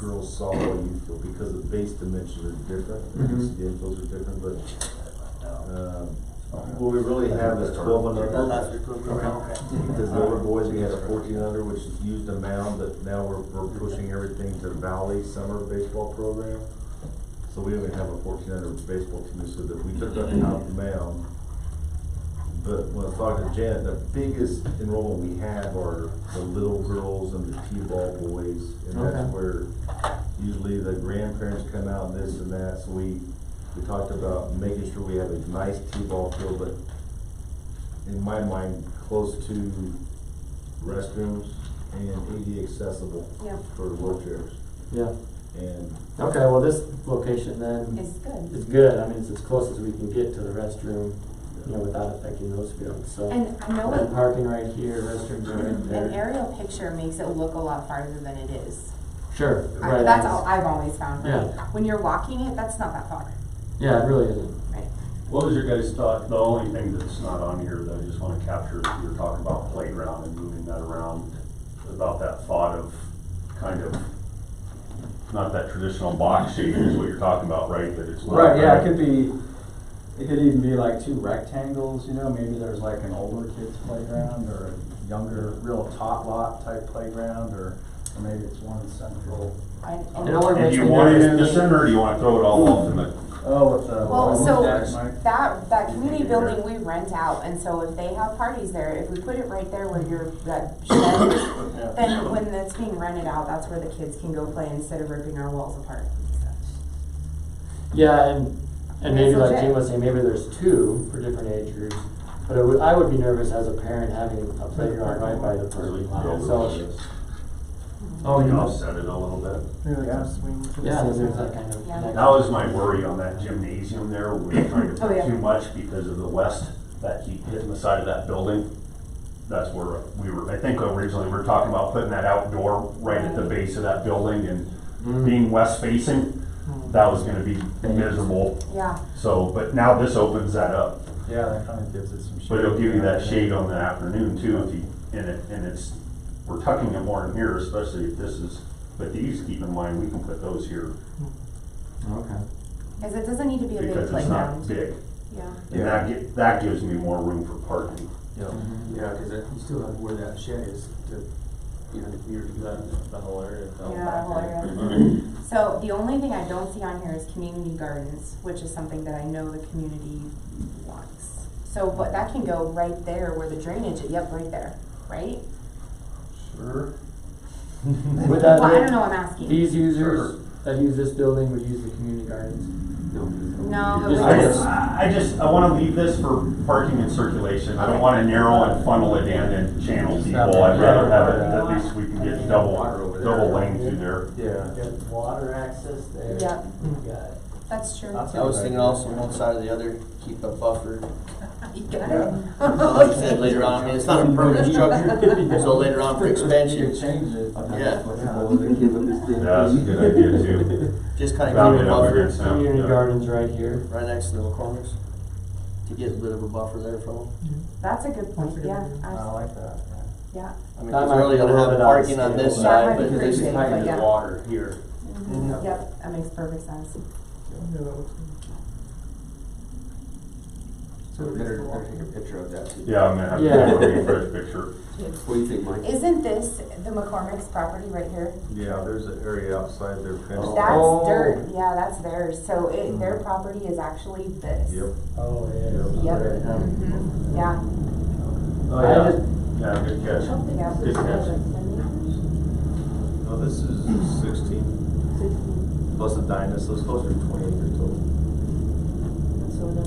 girls softball, youth field, because the base dimensions are different, the Mhm. DCA fields are different, but, um, what we really have is twelve and under. Because the older boys, we had a fourteen under, which used a mound, but now we're, we're pushing everything to Valley Summer Baseball Program. So we only have a fourteen under baseball team, so that we took up out the mound. But when I was talking to Janet, the biggest enrollment we have are the little girls and the T-ball boys. And Okay. that's where usually the grandparents come out and this and that, so we, we talked about making sure we have a nice T-ball field, but in my mind, close to restrooms and AD accessible Yeah. for wheelchairs. Yeah, And okay, well, this location then It's good. is good, I mean, it's as close as we can get to the restroom, you know, uh, without affecting those fields, so. And I know And it- parking right here, restrooms are right an there. aerial picture makes it look a lot farther than it is. Sure, I- right. That's all I've always found, right? Yeah. When you're walking it, that's not that far, Yeah, it really isn't. right? What was your guys' thought, the only thing that's not on here that I just wanna capture, is you were talking about playground and moving that around, about that thought of kind of, not that traditional box shape is what you're talking about, right, that it's. Right, yeah, it could be, it could even be like two rectangles, you know, maybe there's like an older kid's playground or a younger, real tot lot type playground, or, or maybe it's one central. And- and- It only And makes do you me want it nervous. in the center, or do you wanna throw it all off in the, Oh, with the. Well, with so that, Mike? that, that community building we rent out, and so if they have parties there, if we put it right there where your, that shed is, then when that's being rented out, that's where the kids can go play instead of ripping our walls apart. Yeah, and, and maybe It's like legit. Jim was saying, maybe there's two for different age groups. But I would, I would be nervous as a parent having a playground right by the parking lot, so. Oh, you you know, know, set it a little bit? Yeah. yeah, there's that kind of. Yeah. that That was my worry on that gymnasium there, we were trying to Oh, yeah. put too much because of the west, that heat hitting the side of that building. That's where we were, I think originally we were talking about putting that outdoor right at the base of that building and Mm. being west facing, that was gonna be miserable. Yeah, So, but now this opens that up, Yeah, that kinda gives it some shade. but it'll give you that shade on the afternoon too, if you, and it, and it's, we're tucking it more in here, especially if this is, but these, keep in mind, we can put those here Okay. cause it doesn't need to be a big because it's not playground. big. Yeah. And that get, that gives me more room for parking. Yeah, cause it, you still have where that shed is to, you know, the community, that, the whole area, the whole Yeah, back whole area. So the only thing I don't see on here is community gardens, which is something that I know the community wants. So, but that can go right there where the drainage, yep, right there, right? Sure. Would that, Well, I don't know, I'm asking. these users that use this building would use the community gardens? No, it Just- I was, just, I I just, I wanna leave this for parking and circulation, I don't wanna narrow and funnel it in and channel people, I'd rather have it, at least we can get double, double lane through there. Yeah. water access there. Yep. got that's true. That's I was thinking also one side or the other, keep a buffer. You got it. Like I said, later on, I mean, it's not a permanent structure, so later on for You could expansion, change it. I'm not Yeah. flexible with it. Yeah, That's a good idea too. just kinda Round keep a it up buffer against them. Community yeah. gardens right here. right next to the corners to get a bit of a buffer there from them. That's a good point, yeah, I I, like that, yeah. yeah. I mean, That cause might we're only be a gonna little have bit out of parking on this scale, but- side, That might but be there's pretty big, but yeah. water here. Mhm. Yep, that makes perfect sense. So we better, better take a picture of that too. Yeah, I'm gonna have to get a refresh picture. What do you think, Mike? Isn't this the McCormick's property right here? Yeah, there's an area outside their fence. Oh. That's Oh. Mm. dirt, yeah, that's theirs, so it, their property is actually this. Yep. Oh, yeah. Yep, Right, yeah. mhm, yeah. Oh, I yeah, just, yeah, good catch. Yeah. Good catch. No, Oh, this is sixteen, plus a dinosaur, so it's closer to twenty acres total. so then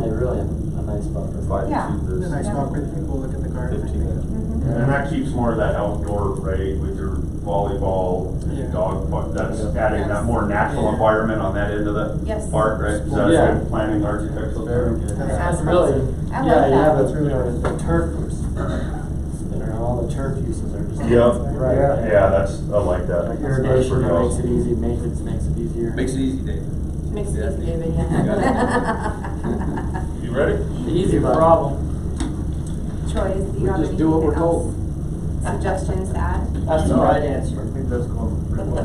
they really have a nice buffer. Five Yeah. to this. Then I Yeah. talk with people, look at the garden. I Fifteen. think. Mm-hmm. And that keeps more of that outdoor, right, with your volleyball and Yeah. dog, park. that's adding that more natural environment on that end of the Yes. park, right? So that's Yeah. good planning architectural. Very good. That's really, I yeah, like you have that. a, you know, the turf, and all the turf uses are just. Yep. Right. Yeah. Yeah, that's, I like Like that. That's irrigation pretty that makes awesome. it easy, maintenance makes it easier. Makes it easy, Dave. Makes it easy, David, yeah. Yeah. You ready? The easy problem. Troy, do you have anything else? Suggestions to add? That's the right answer. I think that's going pretty well.